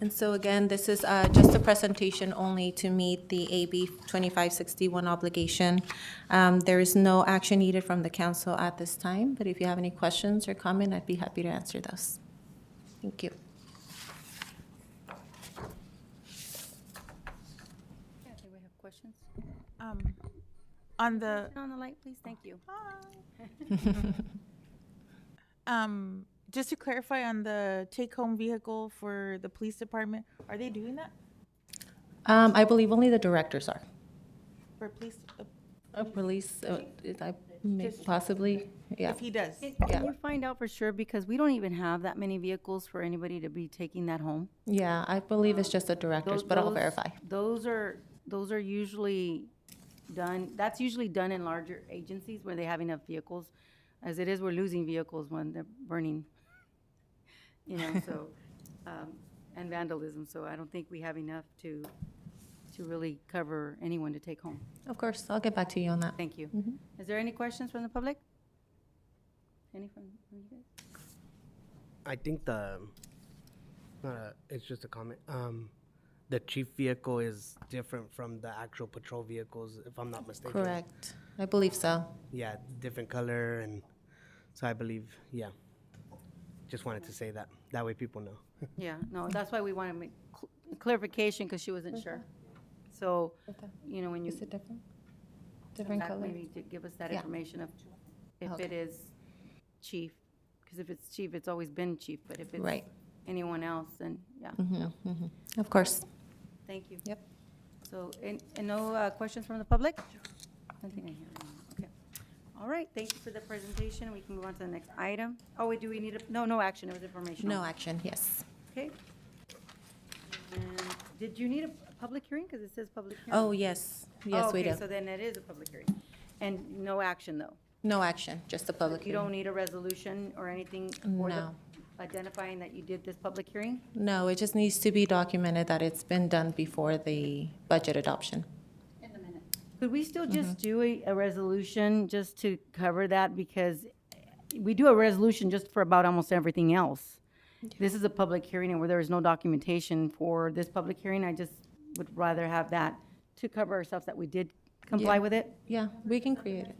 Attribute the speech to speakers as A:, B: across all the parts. A: And so again, this is uh, just a presentation only to meet the AB 2561 obligation. Um, There is no action needed from the council at this time, but if you have any questions or comment, I'd be happy to answer those. Thank you.
B: Do we have questions?
C: Um, on the,
B: Turn on the light, please, thank you.
C: um, just to clarify on the take-home vehicle for the police department, are they doing that
A: Um, I believe only the directors are.
C: for police? uh,
A: Uh, Police, uh, is I- may- possibly, yeah.
C: If he does,
A: Yeah.
B: Can you find out for sure, because we don't even have that many vehicles for anybody to be taking that home?
A: Yeah, I believe it's just the directors,
B: Those-
A: but I'll
B: those-
A: verify.
B: Those are, those are usually done, that's usually done in larger agencies where they have enough vehicles. As it is, we're losing vehicles when they're burning, you know, so, um, and vandalism, so I don't think we have enough to, to really cover anyone to take home.
A: Of course, I'll get back to you on that.
B: Thank you.
A: Mm-hmm.
B: Is there any questions from the public? Any from from you guys?
D: I think the, not a, it's just a comment. Um, the chief vehicle is different from the actual patrol vehicles, if I'm not mistaken.
A: Correct. I believe so.
D: Yeah, different color and, so I believe, yeah. Just wanted to say that, that way people know.
B: Yeah, no, that's why we want to make cl- clarification, because she wasn't sure. So, you know, when you,
A: Is it different? Different
B: that
A: color?
B: maybe to give us that
A: Yeah.
B: information of if
A: Okay.
B: it is chief, because if it's chief, it's always been chief, but if it's
A: Right.
B: anyone else, then, yeah,
A: Of course.
B: thank you.
A: Yep.
B: So, and, and no uh, questions from the public? Nothing I hear, okay. All right, thank you for the presentation, we can move on to the next item. Oh, wait, do we need a, no, no action, it was informational.
A: No action, yes.
B: Okay. And did you need a a public hearing? Because it says public hearing.
A: Oh, yes, yes, we do.
B: Okay, so then it is a public hearing. And no action, though?
A: No action, just the public
B: You don't
A: hearing.
B: need a resolution or anything? or the-
A: No.
B: Identifying that you did this public hearing?
A: No, it just needs to be documented that it's been done before the budget adoption.
B: Could we still
A: Mm-hmm.
B: just do a, a resolution just to cover that? Because we do a resolution just for about almost everything else. This is a public hearing and where there is no documentation for this public hearing, I just would rather have that to cover ourselves that we did comply
A: Yeah.
B: with it.
A: Yeah, we can create it.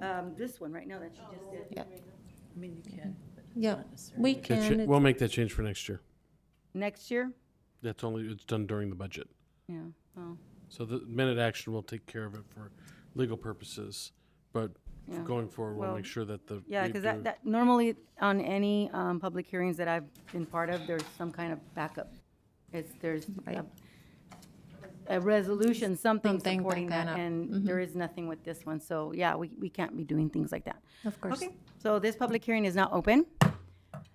B: Um, this one right now that you just did.
A: Yeah,
E: I mean, you can. but
A: yeah,
E: not necessarily.
A: we
F: That
A: can.
F: cha-
A: it's-
F: We'll make that change for next year.
B: Next year?
F: That's only, it's done during the budget.
B: Yeah, well,
F: So the minute action will take care of it for legal purposes. But f-
B: Yeah.
F: going forward, we'll
B: Well,
F: make sure that the.
B: yeah,
F: we
B: because
F: do-
B: that, that, normally on any, um, public hearings that I've been part of, there's some kind of backup. It's, there's a,
A: Right.
B: a resolution, something
A: Something
B: supporting
A: backing
B: that,
A: up. Mm-hmm.
B: and there is nothing with this one, so, yeah, we, we can't be doing things like that.
A: Of course.
B: Okay, so this public hearing is now open,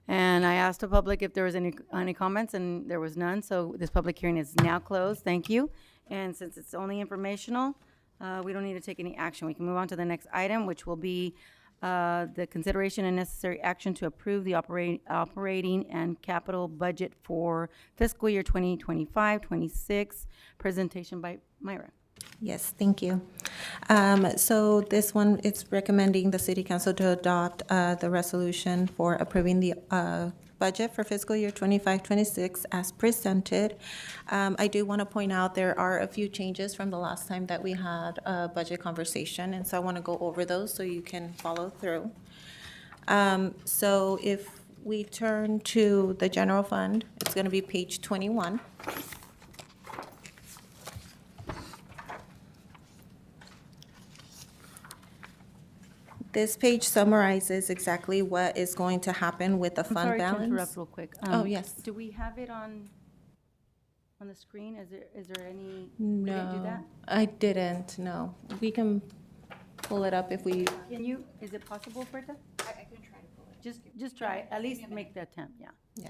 B: and I asked the public if there was any, any comments, and there was none, so this public hearing is now closed, thank you. And since it's only informational, uh, we don't need to take any action, we can move on to the next item, which will be uh, the consideration and necessary action to approve the operating, operating and capital budget for fiscal year 2025, 26, presentation by Myra.
A: Yes, thank you. Um, So this one, it's recommending the city council to adopt uh, the resolution for approving the uh, budget for fiscal year 25-26 as presented. Um, I do want to point out, there are a few changes from the last time that we had a budget conversation, and so I want to go over those so you can follow through. Um, So if we turn to the general fund, it's going to be page 21. This page summarizes exactly what is going to happen with the fund
B: Sorry to
A: balance.
B: interrupt real quick.
A: Oh,
B: Um,
A: yes.
B: Do we have it on, on the screen? Is there, is there any? we didn't do that?
A: I didn't, no. We can pull it up if we,
B: Can you, is it possible, Berta? I, I can try to pull it. Just, just try, at least make the attempt, yeah.
A: yeah.